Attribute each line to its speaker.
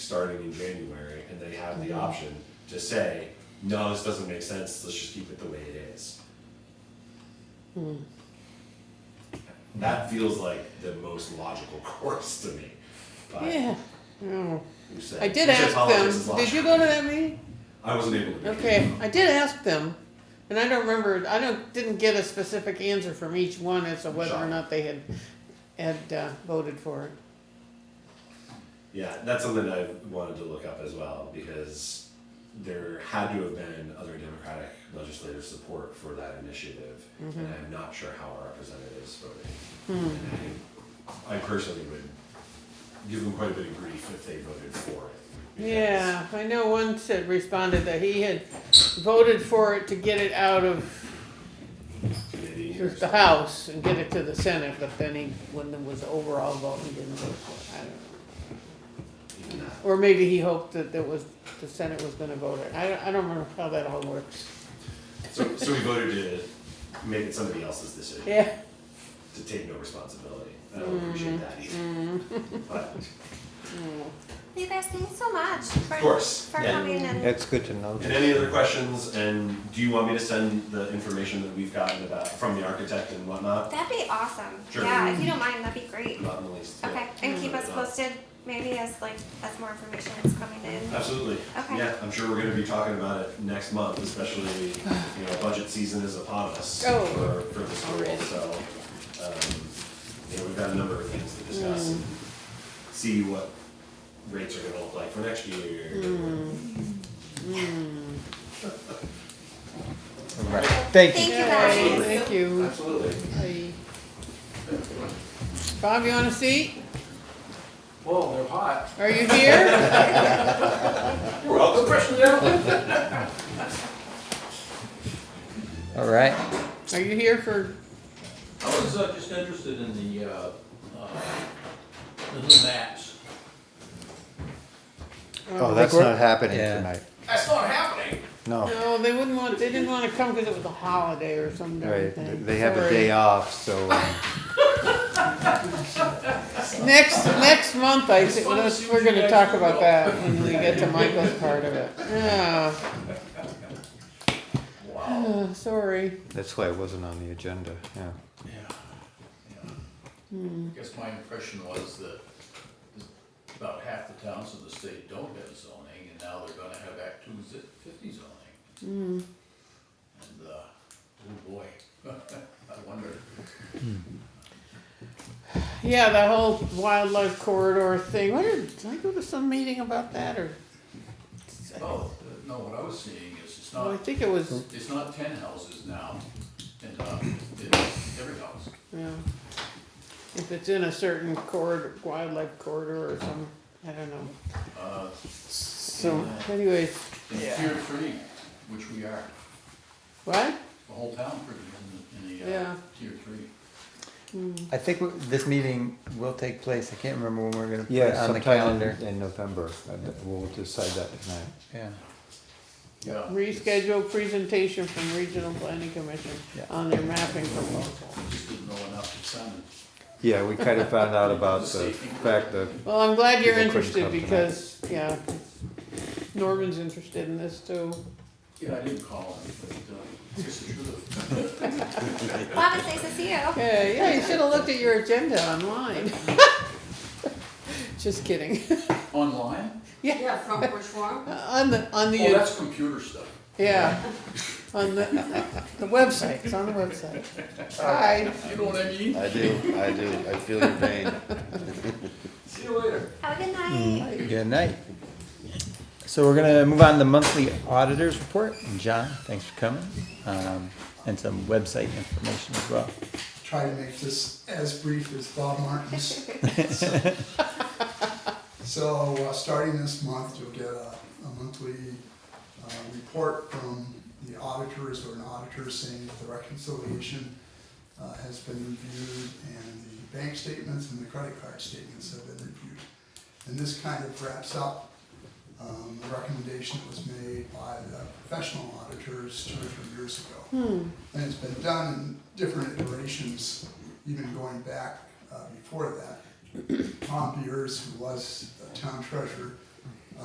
Speaker 1: starting in January, and they have
Speaker 2: Mm-hmm.
Speaker 1: the option to say, no, this doesn't make sense, let's just keep it the way it is.
Speaker 2: Hmm.
Speaker 1: That feels like the most logical course to me, but
Speaker 2: Yeah. Oh.
Speaker 1: who said?
Speaker 2: I did
Speaker 1: who said
Speaker 2: ask
Speaker 1: politics is
Speaker 2: them. Did you
Speaker 1: logical?
Speaker 2: go to that meeting?
Speaker 1: I wasn't able to.
Speaker 2: Okay, I did ask them, and I don't remember. I don't didn't get a specific answer from each one as to whether or
Speaker 1: Sure.
Speaker 2: not they had had uh, voted for it.
Speaker 1: Yeah, that's something I wanted to look up as well because there had to have been other Democratic legislative support for that initiative,
Speaker 2: Mm-hmm.
Speaker 1: and I'm not sure how our representatives
Speaker 2: Hmm.
Speaker 1: voted. And I, I personally would give them quite a bit of grief if they voted for it. because-
Speaker 2: Yeah, I know one said responded that he had voted for it to get it out of
Speaker 1: Committee or
Speaker 2: the House and get it to the Senate, but then he when it was the overall vote, he didn't vote for it. I don't know.
Speaker 1: something like that.
Speaker 2: Or maybe he hoped that there was the Senate was going to vote it. I don't, I don't remember how that all works.
Speaker 1: So, so we voted to make it somebody else's decision.
Speaker 2: Yeah. Mm-hmm.
Speaker 1: to take no responsibility. I don't appreciate that either. But
Speaker 3: You guys, thanks so much for,
Speaker 1: Of course,
Speaker 3: for
Speaker 1: yeah.
Speaker 3: coming and
Speaker 4: That's good to know.
Speaker 1: and any other questions? And do you want me to send the information that we've gotten about from the architect and whatnot?
Speaker 3: that'd be awesome.
Speaker 1: Sure.
Speaker 3: Yeah, if you don't mind, that'd be great.
Speaker 1: Not in the least. yeah.
Speaker 3: Okay, and keep us posted maybe as like as more information is coming in.
Speaker 1: Absolutely.
Speaker 3: Okay.
Speaker 1: Yeah, I'm sure we're going to be talking about it next month, especially you know budget season is upon us
Speaker 2: Oh.
Speaker 1: for, for the school. So um, you know we've got a number of things to discuss and see what rates are going to look like for next year.
Speaker 4: Right. Thank you.
Speaker 3: Thank you
Speaker 2: Yay,
Speaker 3: guys.
Speaker 2: Thank you.
Speaker 1: Absolutely.
Speaker 2: Hey. Bob, you want a seat?
Speaker 5: Whoa, they're hot.
Speaker 2: Are you here?
Speaker 1: You're welcome.
Speaker 5: Fresh gentlemen.
Speaker 4: All right.
Speaker 2: Are you here for,
Speaker 5: I was uh, just interested in the, uh, uh, the new maps.
Speaker 2: uh,
Speaker 4: Oh, that's not happening
Speaker 6: Yeah.
Speaker 4: tonight.
Speaker 5: That's not happening.
Speaker 4: No.
Speaker 2: no, they wouldn't want, they didn't want to come because it was a holiday or some darn
Speaker 4: Right. They
Speaker 2: thing.
Speaker 4: they have a
Speaker 2: Sorry.
Speaker 4: day off, so um,
Speaker 2: Next, next month, I,
Speaker 5: It's
Speaker 2: think
Speaker 5: fun to
Speaker 2: let's-
Speaker 5: see
Speaker 2: we're
Speaker 5: what you
Speaker 2: gonna
Speaker 5: guys
Speaker 2: talk
Speaker 5: do,
Speaker 2: about
Speaker 5: though.
Speaker 2: that when we get to Michael's part of it. Yeah,
Speaker 5: Wow.
Speaker 2: Uh, sorry.
Speaker 4: that's why it wasn't on the agenda. Yeah.
Speaker 5: Yeah. yeah. I guess my impression was that about half the towns in the state don't have zoning, and now they're gonna have Act two zi- fifty zoning. And, uh, oh boy, I wonder.
Speaker 2: Yeah, the whole wildlife corridor thing, what did, did I go to some meeting about that or?
Speaker 5: Oh, no, what I was seeing is it's
Speaker 2: Well, I
Speaker 5: not
Speaker 2: think it was,
Speaker 5: It's not ten houses now, and, uh, it's every house.
Speaker 2: yeah. If it's in a certain corridor, wildlife corridor or some, I don't know.
Speaker 5: Uh,
Speaker 2: So anyways,
Speaker 5: in tier three, which we are,
Speaker 2: what?
Speaker 5: the whole town pretty much in the, in the, uh,
Speaker 2: Yeah.
Speaker 5: tier three.
Speaker 6: I think w- this meeting will take place. I can't remember when we're gonna put it
Speaker 4: Yeah,
Speaker 6: on the
Speaker 4: sometime
Speaker 6: calendar.
Speaker 4: in- in November. uh, We'll decide that tonight.
Speaker 6: Yeah.
Speaker 5: Yeah.
Speaker 2: Reschedule presentation from Regional Planning Commission
Speaker 6: Yeah.
Speaker 2: on their mapping proposal.
Speaker 5: Just didn't know enough to send
Speaker 4: Yeah, we kind of found out about the fact that
Speaker 2: Well, I'm glad you're
Speaker 4: People couldn't
Speaker 2: interested
Speaker 4: come tonight.
Speaker 2: because, yeah, Norman's interested in this too.
Speaker 5: Yeah, I didn't call him, but, uh, it's the truth.
Speaker 3: Bob, it's nice to see you.
Speaker 2: Yeah, yeah, you should have looked at your agenda online. Just kidding.
Speaker 5: Online?
Speaker 7: Yeah, from Bushwar.
Speaker 2: On the, on
Speaker 5: Oh,
Speaker 2: the,
Speaker 5: that's computer stuff.
Speaker 2: yeah, on the, the website, it's on the website. Hi.
Speaker 5: You know what I mean?
Speaker 8: I do, I do. I feel your pain.
Speaker 5: See you later.
Speaker 3: Have a good night.
Speaker 6: Good night. So we're gonna move on to the monthly auditors report. And John, thanks for coming, um, and some website information as well.
Speaker 9: try to make this as brief as Bob Martin's. So, uh, starting this month, you'll get a, a monthly, uh, report from the auditors or an auditor saying that the reconciliation, uh, has been reviewed and the bank statements and the credit card statements have been reviewed. And this kind of wraps up, um, the recommendation that was made by the professional auditors two or three years ago. And it's been done in different iterations, even going back uh, before that. Tom Beers, who was the town treasurer,